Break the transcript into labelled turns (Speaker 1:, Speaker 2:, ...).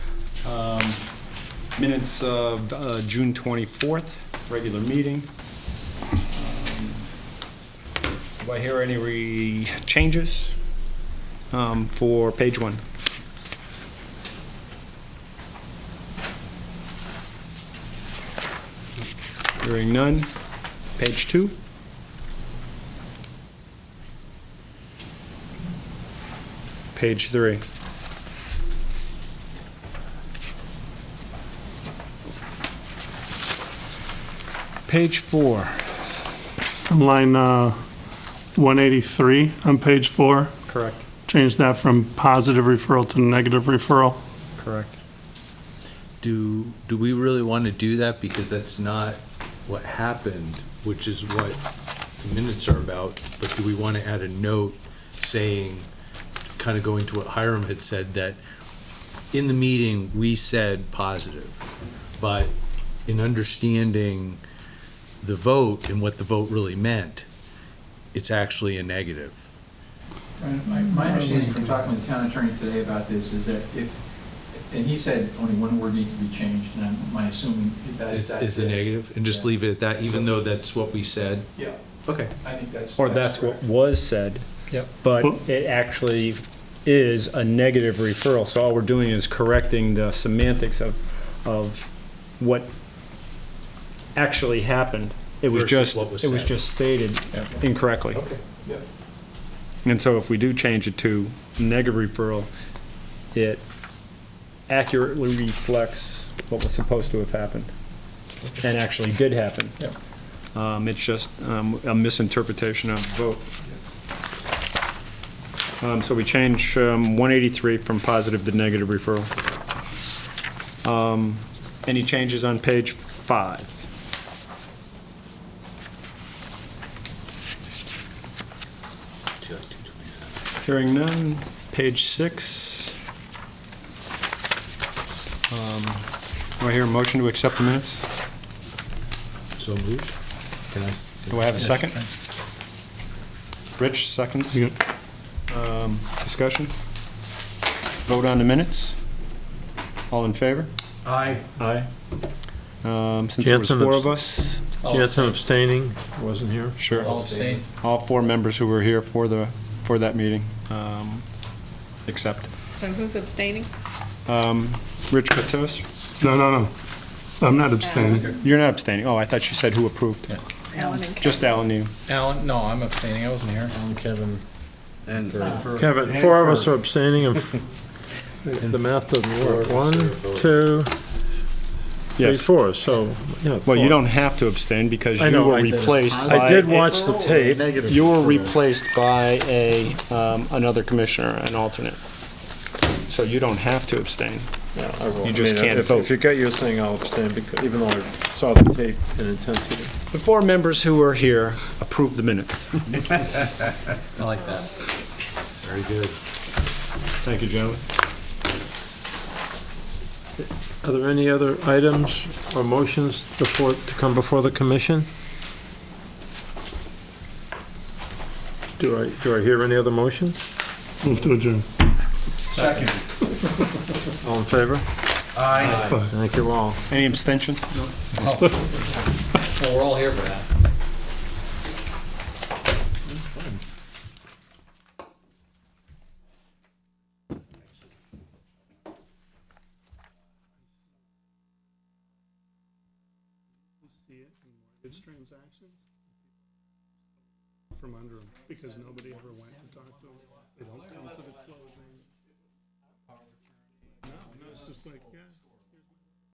Speaker 1: Minutes of uh, June 24th, regular meeting. Do I hear any re- changes um, for page one? Hearing none. Page two? Page three. Page four.
Speaker 2: line uh, 183 on page four,
Speaker 1: Correct.
Speaker 2: change that from positive referral to negative referral.
Speaker 1: Correct.
Speaker 3: Do, do we really want to do that? Because that's not what happened, which is what the minutes are about. But do we want to add a note saying, kind of going to what Hiram had said, that in the meeting, we said positive, but in understanding the vote and what the vote really meant, it's actually a negative.
Speaker 4: Right, My, my understanding from talking with the town attorney today about this is that if, and he said only one word needs to be changed, and I'm, my assuming that is
Speaker 3: Is,
Speaker 4: that.
Speaker 3: is a negative, and just
Speaker 4: Yeah.
Speaker 3: leave it at that, even though that's what we said.
Speaker 4: Yeah,
Speaker 3: Okay.
Speaker 4: I think that's.
Speaker 1: Or that's what
Speaker 4: correct.
Speaker 1: was said.
Speaker 3: Yep.
Speaker 1: But it actually is a negative referral, so all we're doing is correcting the semantics of, of what actually happened. It was
Speaker 3: Versus
Speaker 1: just,
Speaker 3: what was
Speaker 1: it was
Speaker 3: said.
Speaker 1: just stated
Speaker 3: Yep.
Speaker 1: incorrectly.
Speaker 3: Okay.
Speaker 4: Yep.
Speaker 1: And so if we do change it to negative referral, it accurately reflects what was supposed to have happened and actually did happen. Um, It's just um, a misinterpretation of the vote. Um, So we change um, 183 from positive to negative referral. Um, Any changes on page five? Hearing none. Page six. Um, Do I hear a motion to accept the minutes?
Speaker 3: So moved. Can I? s-
Speaker 1: Do I have a second? Rich, seconds.
Speaker 2: Yeah.
Speaker 1: Um, Discussion? Vote on the minutes? All in favor?
Speaker 3: Aye.
Speaker 1: Aye. Um, Since there was
Speaker 5: Jansen
Speaker 1: four
Speaker 5: abs-
Speaker 1: of us,
Speaker 5: Jansen abstaining, wasn't here.
Speaker 1: sure.
Speaker 4: All abstain.
Speaker 1: All four members who were here for the, for that meeting, um, accept.
Speaker 6: So who's abstaining?
Speaker 1: Um, Rich Katos?
Speaker 2: No, no, no, I'm not abstaining.
Speaker 1: You're not abstaining. Oh, I thought you said who approved.
Speaker 6: Alan and
Speaker 1: Just Alan, you.
Speaker 7: Alan, no, I'm abstaining, I wasn't here. Kevin.
Speaker 8: And
Speaker 5: Kevin, four of us are abstaining and f- the math doesn't work. One, two, three,
Speaker 1: Yes.
Speaker 5: four, so, yeah.
Speaker 1: Well, you
Speaker 5: four.
Speaker 1: don't have to abstain because
Speaker 5: I
Speaker 1: you
Speaker 5: know,
Speaker 1: were
Speaker 5: I-
Speaker 1: replaced by.
Speaker 5: I did watch the tape.
Speaker 1: You were replaced by a, um, another commissioner, an alternate. So you don't have to abstain. You just can't
Speaker 5: if-
Speaker 1: vote.
Speaker 5: If you got your thing, I'll abstain, because even though I saw the tape in intensity.
Speaker 1: The four members who were here approved the minutes.
Speaker 7: I like that.
Speaker 3: Very good.
Speaker 1: Thank you, gentlemen.
Speaker 5: Are there any other items or motions before, to come before the commission? Do I, do I hear any other motions?
Speaker 2: Move to adjourn.
Speaker 5: All in favor?
Speaker 7: Aye.
Speaker 5: Thank you all.
Speaker 1: Any abstentions?
Speaker 7: Oh. Well, we're all here for that.
Speaker 2: It's transactions from under them, because nobody ever went to talk to them. They don't come to the closing. No, no, it's just like, yeah.